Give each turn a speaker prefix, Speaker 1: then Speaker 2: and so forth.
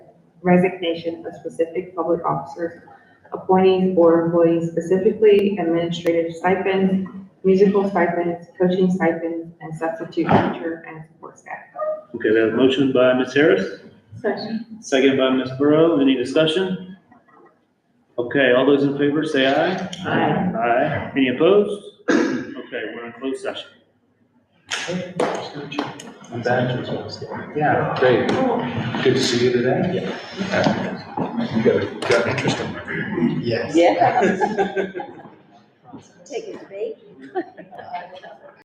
Speaker 1: resignation of specific public officers, appointees or employees specifically, administrative stipends, musical stipends, coaching stipends, and substitute teacher and support staff.
Speaker 2: Okay, we have a motion by Ms. Harris,
Speaker 3: Second.
Speaker 2: second by Ms. Burrow. Any discussion? Okay, all those in favor say aye.
Speaker 1: Aye.
Speaker 2: Aye. Any opposed? Okay, we're in closed session.
Speaker 4: I'm back. Yeah, great. Good to see you today. You got, a- got an interesting. Yes.
Speaker 3: Yeah. Take it.